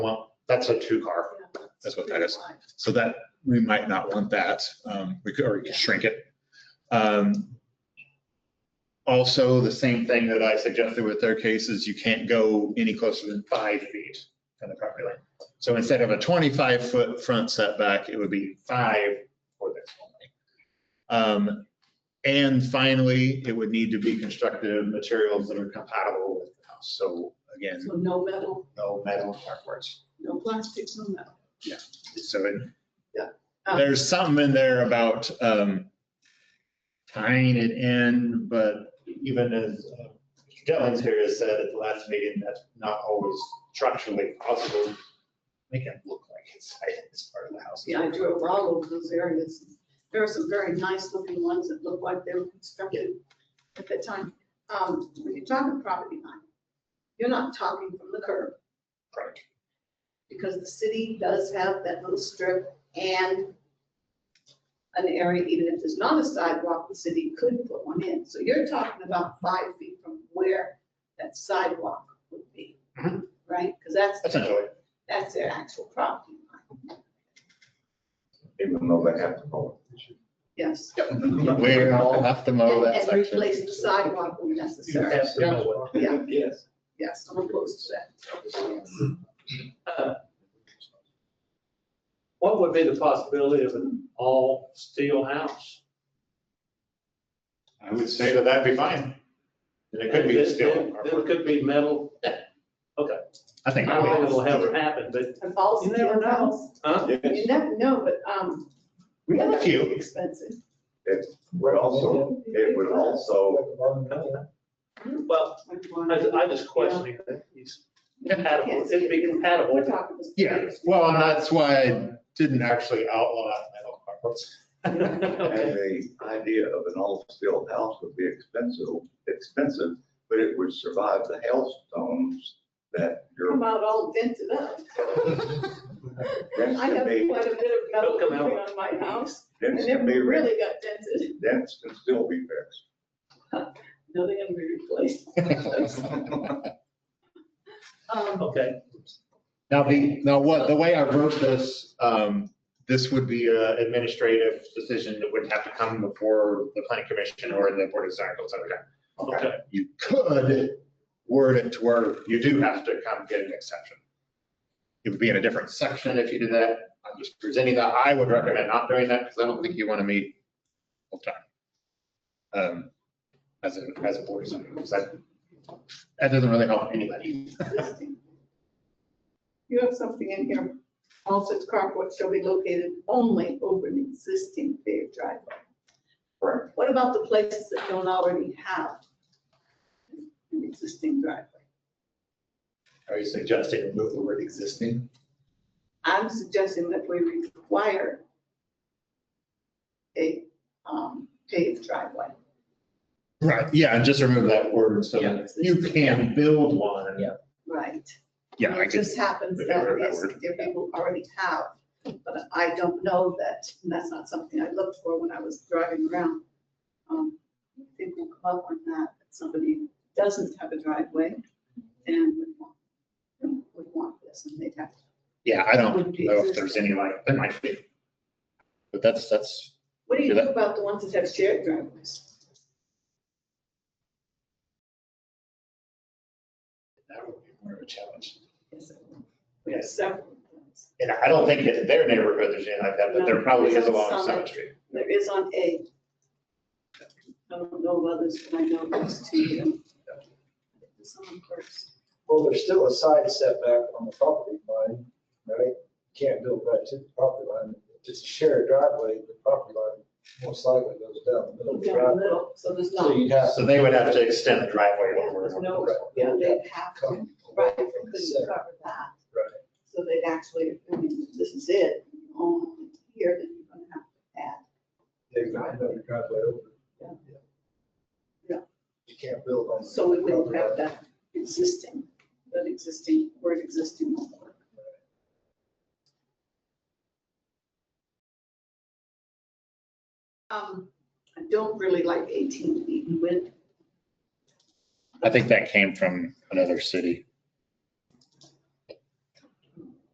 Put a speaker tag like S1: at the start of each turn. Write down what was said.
S1: That's a two car.
S2: That's what that is. So that, we might not want that. Um, we could, or we could shrink it. Um, Also, the same thing that I suggested with their case is you can't go any closer than five feet from the property line. So instead of a twenty-five foot front setback, it would be five for this only. Um, and finally, it would need to be constructed of materials that are compatible with the house. So again,
S3: So no metal,
S2: no metal artworks.
S3: no plastics, no metal.
S2: So it, uh,
S3: Um,
S2: There's something in there about um, tying it in, but even as uh, Mr. Jennings here has said at the last meeting, that's not always structurally possible. Make it look like it's, it's part of the house.
S3: Yeah, I drove all over those areas. There are some very nice looking ones that look like they were constructed at that time. Um, When you're talking property line, you're not talking from the curb
S2: Correct.
S3: because the city does have that little strip and an area, even if there's not a sidewalk, the city could put one in. So you're talking about five feet from where that sidewalk would be,
S1: Mhm.
S3: right? Because that's,
S2: Essentially,
S3: that's their actual property line.
S4: Even though they have to mow
S3: Yes.
S2: we all have to mow
S3: And
S2: that
S3: and
S2: section.
S3: replace the sidewalk when necessary. Yeah.
S4: it. Yes.
S3: Yes, I'm opposed to that.
S5: What would be the possibility of an all steel house?
S1: I would say that that'd be fine. And it could be a steel.
S5: It could be metal.
S2: I
S5: I
S2: think,
S5: don't think it'll ever happen, but,
S3: And falls
S5: You never
S3: steel
S5: know.
S3: house,
S5: huh?
S3: you never know, but, um,
S1: We have a
S3: that's
S1: few.
S3: Expensive.
S4: We're also, it would also,
S5: Well, I, I just questioning that it's compatible, it'd be
S3: We're
S5: compatible.
S3: talking. about-
S2: yeah, well, and that's why I didn't actually outlaw metal carports.
S5: Okay.
S4: and the idea of an all-steel house would be expensive, expensive, but it would survive the hailstones that your
S3: Come out all dented up.
S4: dents
S3: I
S4: can
S3: have
S4: be,
S3: quite a bit of
S5: They'll come
S3: metal
S5: out.
S3: on my house, and
S4: dents
S3: it
S4: can be, re-
S3: really got dented.
S4: dents can still be fixed.
S3: No, they're gonna be replaced. Um,
S5: Okay,
S2: Now, the, now what, the way I wrote this, um, this would be an administrative decision that would have to come before the planning commission or the board of design goes over that.
S5: okay.
S2: You could word it to where you do have to come get an exception. It would be in a different section if you did that. I'm just presenting that. I would recommend not doing that because I don't think you want to meet full time. Um, as a, as a board of design, because that, that doesn't really help anybody.
S3: You have something in here, all such carports shall be located only over an existing paved driveway.
S4: Correct.
S3: What about the places that don't already have an existing driveway?
S2: Are you suggesting remove the word existing?
S3: I'm suggesting that we require a um, paved driveway.
S2: Right, yeah, and just remove that word, so
S3: Yeah.
S2: you can build one.
S6: Yeah.
S3: Right.
S2: Yeah, I
S3: It
S2: could,
S3: just happens
S2: we
S3: that
S2: could order that
S3: yes,
S2: word.
S3: there people already have, but I don't know that, and that's not something I looked for when I was driving around. Um, I think we'll come up on that, that somebody doesn't have a driveway and would want, would want this, and they'd have to
S2: yeah, I don't
S3: Would be
S2: know if there's any like, there might be. But that's, that's,
S3: What do you
S2: Do
S3: do
S2: that.
S3: about the ones that have shared driveways?
S2: that would be more of a challenge.
S3: Yes, We have several. of those.
S2: And I don't think in their neighborhood there's any like that, but there
S3: No,
S2: probably is
S3: there's
S2: along
S3: some.
S2: Summit Street.
S3: There is on A. I don't know of others, but I know those two. It's on first.
S7: Well, there's still a side setback on the property line, right? Can't build right to the property line. If it's a shared driveway, the property line most likely goes down the middle of the
S3: Down the
S7: driveway.
S3: middle, so there's
S7: So
S3: not.
S7: you'd have
S2: So they would have to extend the driveway over.
S3: There's no, yeah,
S7: Yeah.
S3: they'd have to,
S7: to come away
S3: right, they
S7: from the
S3: couldn't
S7: center.
S3: cover that.
S7: Right.
S3: So they'd actually, I mean, this is it, only here that you're gonna have to add.
S7: They've got another driveway
S3: Yeah.
S7: over.
S3: Yeah.
S7: You can't build on.
S3: So we will
S7: property line.
S3: have that existing, that existing, word existing won't work. Um, I don't really like eighteen feet in width.
S2: I think that came from another city.